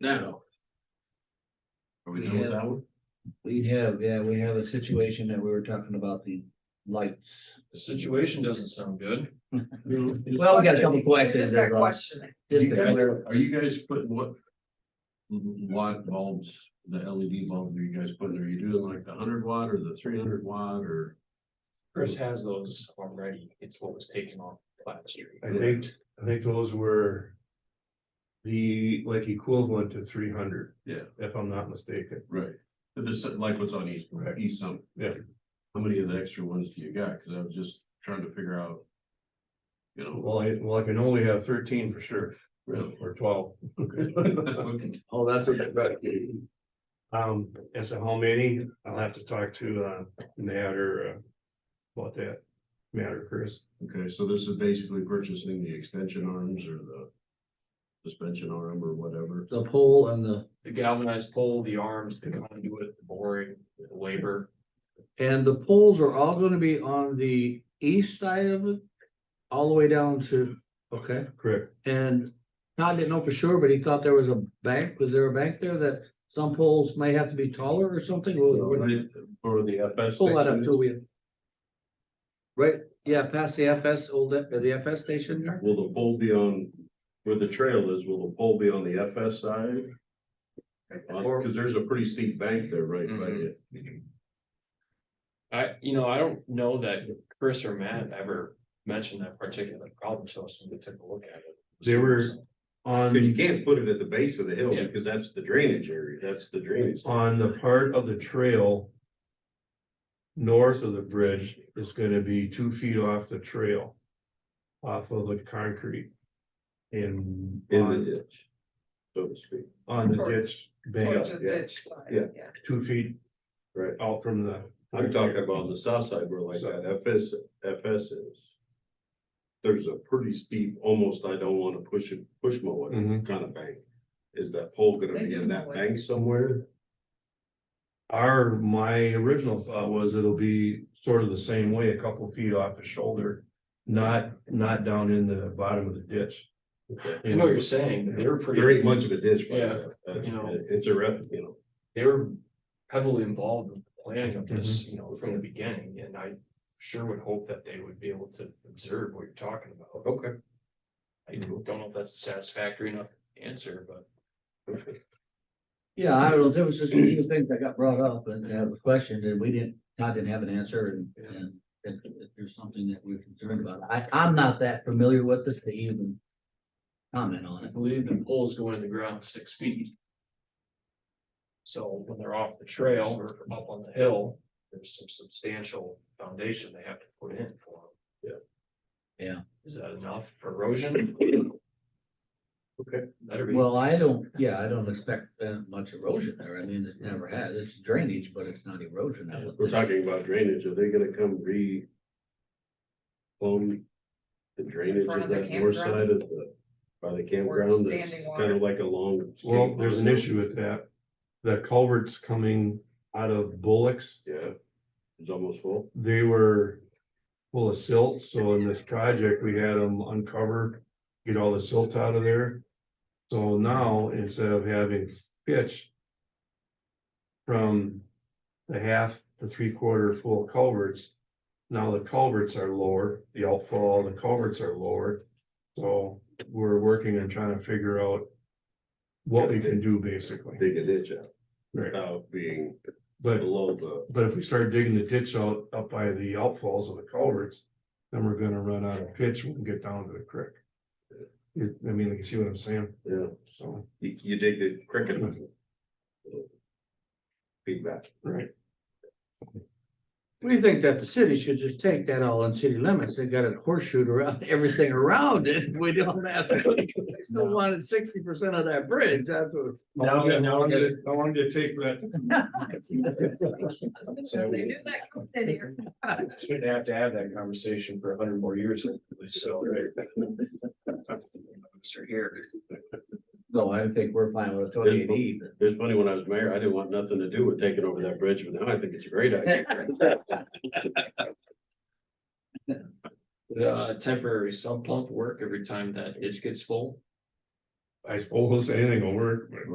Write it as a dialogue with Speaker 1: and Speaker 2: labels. Speaker 1: No. Are we
Speaker 2: We
Speaker 1: doing
Speaker 2: have,
Speaker 1: that one?
Speaker 2: we have, yeah, we have a situation that we were talking about the lights.
Speaker 3: The situation doesn't sound good.
Speaker 2: Well, we got a couple questions
Speaker 4: Just that
Speaker 2: there, Rob.
Speaker 4: questioning.
Speaker 2: Just to clear-
Speaker 1: Are you guys putting what? Watt bulbs, the LED bulbs are you guys putting, are you doing like the hundred watt or the three hundred watt or?
Speaker 3: Chris has those already. It's what was taken off last year.
Speaker 5: I think, I think those were. The like equivalent to three hundred.
Speaker 1: Yeah.
Speaker 5: If I'm not mistaken.
Speaker 1: Right, but this, like what's on East,
Speaker 5: Right.
Speaker 1: East Summit.
Speaker 5: Yeah.
Speaker 1: How many of the extra ones do you got? Cause I was just trying to figure out. You know,
Speaker 5: Well, I, well, I can only have thirteen for sure,
Speaker 1: really.
Speaker 5: or twelve.
Speaker 1: Okay.
Speaker 2: Oh, that's what, right,
Speaker 5: Um, as to how many, I'll have to talk to, uh, Matt or, uh, about that. Matt or Chris.
Speaker 1: Okay, so this is basically purchasing the extension arms or the. Suspension arm or whatever.
Speaker 2: the pole and the,
Speaker 3: The galvanized pole, the arms, the conduit, the boring, the labor.
Speaker 2: and the poles are all gonna be on the east side of it? All the way down to, okay,
Speaker 5: Correct.
Speaker 2: and Todd didn't know for sure, but he thought there was a bank, was there a bank there that some poles may have to be taller or something? Well, we're-
Speaker 1: Or the FS.
Speaker 2: Pull that up
Speaker 1: section.
Speaker 2: till we. Right, yeah, past the FS, old, uh, the FS station there?
Speaker 1: Will the pole be on, where the trail is, will the pole be on the FS side? On-
Speaker 2: Or-
Speaker 1: Uh, Cause there's a pretty steep bank there, right, by
Speaker 3: Mhm.
Speaker 1: it.
Speaker 3: I, you know, I don't know that Chris or Matt ever mentioned that particular problem to us when we took a look at it.
Speaker 5: They were- On,
Speaker 1: Cause you can't put it at the base of the hill,
Speaker 3: Yeah.
Speaker 1: because that's the drainage area, that's the drainage.
Speaker 5: on the part of the trail. North of the bridge is gonna be two feet off the trail. Off of the concrete. And.
Speaker 1: In the
Speaker 5: on-
Speaker 1: ditch. So to speak.
Speaker 5: on the
Speaker 4: Or-
Speaker 5: ditch
Speaker 4: Towards
Speaker 5: bank,
Speaker 4: the
Speaker 1: yeah,
Speaker 4: ditch side,
Speaker 1: yeah.
Speaker 4: yeah.
Speaker 5: two feet.
Speaker 1: Right.
Speaker 5: Out from the.
Speaker 1: I'm talking about on the south side where like that FS, FS is. There's a pretty steep, almost I don't wanna push it, push mow it
Speaker 5: Mhm.
Speaker 1: kind of bank. Is that pole gonna
Speaker 4: They
Speaker 1: be
Speaker 4: do
Speaker 1: in that
Speaker 4: mow it.
Speaker 1: bank somewhere?
Speaker 5: Our, my original thought was it'll be sort of the same way, a couple feet off the shoulder. Not, not down in the bottom of the ditch.
Speaker 3: I know what you're saying, but they were pretty.
Speaker 1: There ain't much of a ditch. by
Speaker 3: Yeah,
Speaker 1: that.
Speaker 3: you know.
Speaker 1: It's a rep, you know.
Speaker 3: they were heavily involved in the planning of this, you know, from the beginning, and I sure would hope that they would be able to observe what you're talking about.
Speaker 1: Okay.
Speaker 3: I don't know if that's a satisfactory enough answer, but
Speaker 2: Yeah, I don't know, there was just a few things that got brought up and that was questioned and we didn't, Todd didn't have an answer and, and if, if there's something that we're concerned about, I, I'm not that familiar with this to even comment on
Speaker 3: I
Speaker 2: it.
Speaker 3: believe the poles go into the ground six feet. So when they're off the trail or up on the hill, there's some substantial foundation they have to put in for them.
Speaker 2: Yeah. Yeah.
Speaker 3: Is that enough for erosion?
Speaker 1: Okay.
Speaker 3: Better be.
Speaker 2: Well, I don't, yeah, I don't expect uh, much erosion there, I mean, it never has, it's drainage, but it's not erosion. I would
Speaker 1: We're
Speaker 2: think.
Speaker 1: talking about drainage, are they gonna come re? Clone the drainage
Speaker 4: front
Speaker 1: of
Speaker 4: of the
Speaker 1: that north
Speaker 4: campground?
Speaker 1: side of the, by the campground, that's
Speaker 4: standing
Speaker 1: kind
Speaker 4: water.
Speaker 1: of like a long.
Speaker 5: Well, there's an issue with that. The culverts coming out of Bullocks,
Speaker 1: Yeah, it's almost full.
Speaker 5: they were. Full of silt, so in this project, we had them uncover, get all the silt out of there. So now, instead of having pitch. From the half to three quarter full culverts. Now the culverts are lower, the outfall, the culverts are lower. So we're working on trying to figure out. What we can do basically,
Speaker 1: Dig a ditch out
Speaker 5: right,
Speaker 1: without being
Speaker 5: but.
Speaker 1: below the,
Speaker 5: But if we start digging the ditch out up by the outfalls of the culverts, then we're gonna run out of pitch when we get down to the creek. Is- I mean, you see what I'm saying,
Speaker 1: yeah,
Speaker 5: so,
Speaker 1: you, you dig the cricket.
Speaker 5: Mm-hmm.
Speaker 1: Feedback.
Speaker 5: right,
Speaker 2: We think that the city should just take that all in city limits, they got it horseshoe around, everything around it, we don't have. they Still wanted sixty percent of that bridge, that's what.
Speaker 3: Now, now I'm gonna-
Speaker 5: I wanted to take that.
Speaker 4: That's good, so They do that come in here.
Speaker 3: Shouldn't have to have that conversation for a hundred more years, hopefully, so. Sir, here.
Speaker 2: No, I think we're fine with E.
Speaker 1: what you need. It's funny, when I was mayor, I didn't want nothing to do with taking over that bridge, but now I think it's a great idea.
Speaker 3: Uh, temporary sump pump work every time that ditch gets full.
Speaker 5: I suppose anything will work, but.